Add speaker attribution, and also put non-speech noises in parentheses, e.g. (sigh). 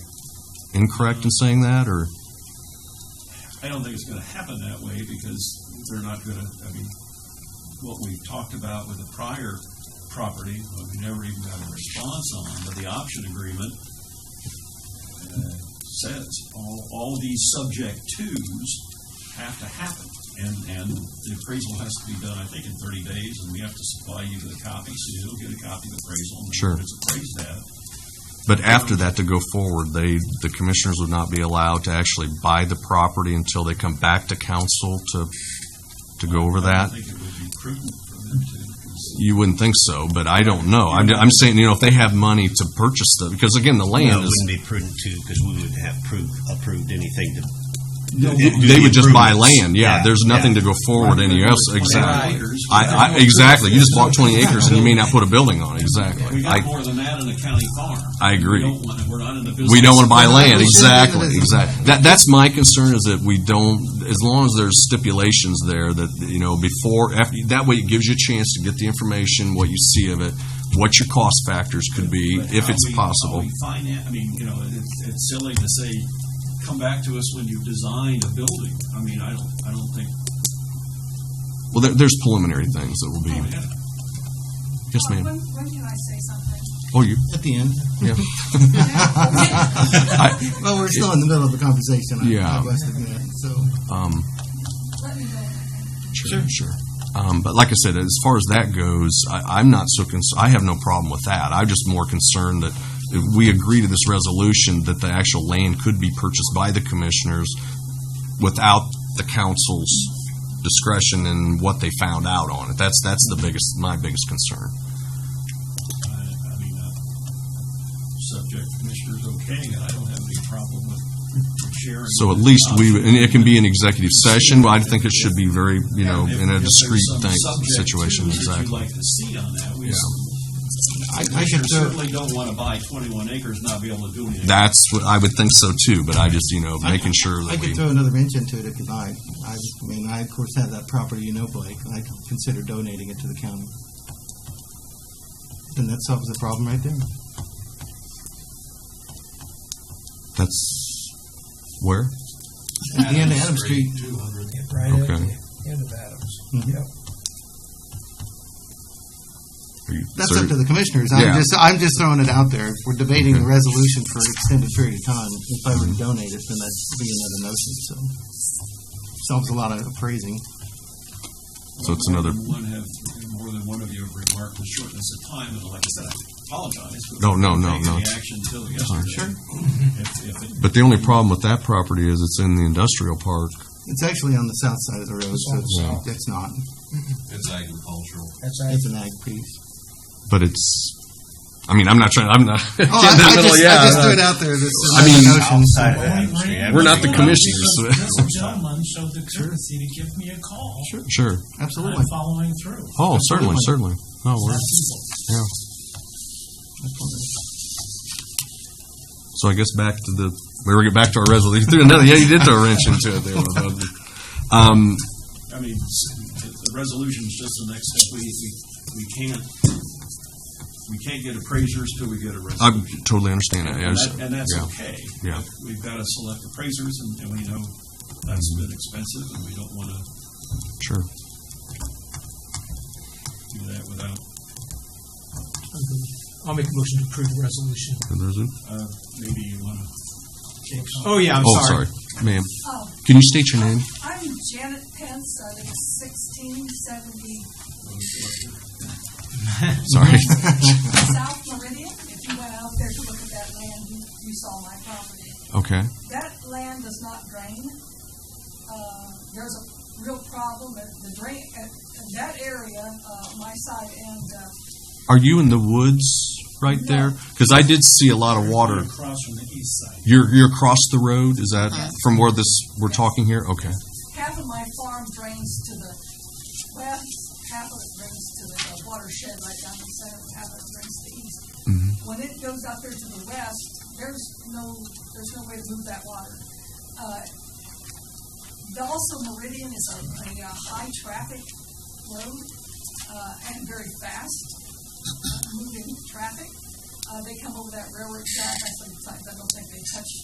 Speaker 1: incorrect in saying that, or?
Speaker 2: I don't think it's going to happen that way because they're not going to, I mean, what we talked about with the prior property, what we never even got a response on, but the option agreement uh, says all, all these subject twos have to happen. And, and the appraisal has to be done, I think, in thirty days, and we have to supply you with a copy, so you'll get a copy of the appraisal. and
Speaker 1: Sure.
Speaker 2: It's appraised at.
Speaker 1: But after that, to go forward, they, the commissioners would not be allowed to actually buy the property until they come back to council to, to go over
Speaker 2: I
Speaker 1: that?
Speaker 2: don't think it would be prudent for them to, because
Speaker 1: You wouldn't think so, but I don't know. I'm, I'm saying, you know, if they have money to purchase the, because again, the
Speaker 3: No, it
Speaker 1: land
Speaker 3: wouldn't
Speaker 1: is,
Speaker 3: be prudent to, because we would have proof, approved anything to. do- do
Speaker 1: they
Speaker 3: the
Speaker 1: would just buy land,
Speaker 3: improvements.
Speaker 1: yeah. There's nothing to go forward any else, exactly.
Speaker 2: acres.
Speaker 1: I, I, exactly. You just bought twenty acres and you may not put a building on it, exactly.
Speaker 2: We
Speaker 1: I,
Speaker 2: got more than that in a county farm.
Speaker 1: I agree.
Speaker 2: We don't want, we're not in the business.
Speaker 1: We don't want to buy land,
Speaker 4: Yeah,
Speaker 1: exactly,
Speaker 4: yeah.
Speaker 1: exactly. That, that's my concern, is that we don't, as long as there's stipulations there that, you know, before, after, that way it gives you a chance to get the information, what you see of it, what your cost factors could be,
Speaker 2: But
Speaker 1: if
Speaker 2: how
Speaker 1: it's
Speaker 2: we- how
Speaker 1: possible.
Speaker 2: we finan- I mean, you know, it's, it's silly to say, come back to us when you've designed a building. I mean, I don't, I don't think,
Speaker 1: Well, there, there's preliminary things that will be,
Speaker 2: yeah.
Speaker 1: yes,
Speaker 5: Well,
Speaker 1: ma'am.
Speaker 5: When, when can I say something?
Speaker 1: Oh, you,
Speaker 4: At the end.
Speaker 1: yeah.
Speaker 4: Well, we're still in the middle of the conversation. I-
Speaker 1: Yeah.
Speaker 4: I must admit. So
Speaker 1: Um,
Speaker 5: Let me know.
Speaker 1: Sure, sure. Um, but like I said, as far as that goes, I, I'm not so cons- I have no problem with that. I'm just more concerned that if we agree to this resolution, that the actual land could be purchased by the commissioners without the council's discretion and what they found out on it. That's, that's the biggest, my biggest concern.
Speaker 2: I, I mean, uh, subject commissioner's okay, I don't have any problem with with sharing.
Speaker 1: So at least we, and it can be an executive session, but I think it should be very, you know,
Speaker 2: If-
Speaker 1: in a
Speaker 2: if there's
Speaker 1: discreet
Speaker 2: some
Speaker 1: thing,
Speaker 2: subject
Speaker 1: situation,
Speaker 2: twos that
Speaker 1: exactly.
Speaker 2: You'd like to see on that, we
Speaker 1: Yeah.
Speaker 4: I, I
Speaker 2: Commissioners
Speaker 4: should throw,
Speaker 2: certainly don't want to buy twenty-one acres and not be able to do anything.
Speaker 1: That's what, I would think so too, but I just, you know, making sure
Speaker 4: I
Speaker 1: that we.
Speaker 4: could throw another wrench into it if you like. I just- I mean, I of course have that property, you know, Blake, and I could consider donating it to the county. Then that solves the problem right there.
Speaker 1: That's where?
Speaker 4: At the end of Adam Street.
Speaker 6: Right at
Speaker 1: Okay.
Speaker 6: the end of Adams.
Speaker 4: Mhm.
Speaker 6: Yep.
Speaker 1: Are you-
Speaker 4: That's
Speaker 1: sir,
Speaker 4: up to the commissioners.
Speaker 1: Yeah.
Speaker 4: I'm just, I'm just throwing it out there. If we're debating the resolution for an extended period of time, if I were to donate it, then that'd be another notion, so. Solves a lot of appraising.
Speaker 1: So it's another-
Speaker 2: One have, more than one of you have remarked the shortness of time, and like I said, I apologize. for
Speaker 1: No, no, no,
Speaker 2: taking
Speaker 1: no.
Speaker 2: the action until yesterday.
Speaker 4: Sure.
Speaker 2: If- if it-
Speaker 1: But the only problem with that property is it's in the industrial park.
Speaker 4: It's actually on the south side of the road, so it's, it's not.
Speaker 6: That's
Speaker 4: It's an ag piece.
Speaker 1: But it's, I mean, I'm not trying, I'm not. (laughs)
Speaker 4: Oh, I, I just, I just threw it out there. This is
Speaker 1: I mean-
Speaker 4: another notion. so-
Speaker 3: Outside of Adams Street. I
Speaker 1: We're not the
Speaker 3: think-
Speaker 1: commissioners.
Speaker 7: This gentleman showed the courtesy to give me a call.
Speaker 1: Sure. Sure.
Speaker 4: Absolutely.
Speaker 7: I'm following through.
Speaker 1: Oh, certainly, certainly. Oh, No, we're, yeah. So I guess back to the, we were get back to our resolution. (laughs) You threw another, yeah, you did throw a wrench into it there. wasn't it? Um,
Speaker 2: I mean, s- the the resolution's just the next step. We, we, we can't, we can't get appraisers till we get a
Speaker 1: I
Speaker 2: resolution.
Speaker 1: totally understand that. Yeah,
Speaker 2: And that-
Speaker 1: it's-
Speaker 2: and that's
Speaker 1: yeah.
Speaker 2: okay.
Speaker 1: Yeah.
Speaker 2: We've got to select appraisers, and and we know that's been expensive, and we don't want to
Speaker 1: Sure.
Speaker 2: do that without,
Speaker 7: I'll make a motion to approve the resolution.
Speaker 1: And there's a-
Speaker 2: uh, maybe you want to
Speaker 7: Oh, yeah, I'm
Speaker 1: Oh,
Speaker 7: sorry.
Speaker 1: sorry. Ma'am,
Speaker 5: Oh,
Speaker 1: can you state your name?
Speaker 5: I'm Janet Pence, I live sixteen seventy
Speaker 7: (laughs)
Speaker 1: Sorry.
Speaker 5: South Meridian. If you went out there to look at that land, you, you saw my property.
Speaker 1: Okay.
Speaker 5: That land does not drain. Uh, there's a real problem, the the drain, uh, that area, uh, my side and, uh,
Speaker 1: Are you in the woods right
Speaker 5: No.
Speaker 1: there? Because I did see a lot of water.
Speaker 7: Across from the east side.
Speaker 1: You're you're across the road. Is that from where this we're talking here? Okay.
Speaker 5: half of my farm drains to the west, half of it drains to the uh, watershed right down the center, half of it drains to the east. When it goes out there to the west, there's no, there's no way to move that water. Uh, the- Also, Meridian is a, a uh, high-traffic road, uh, and very fast, uh, moving traffic. Uh, they come over that railroad track, I sometimes, I don't think they touch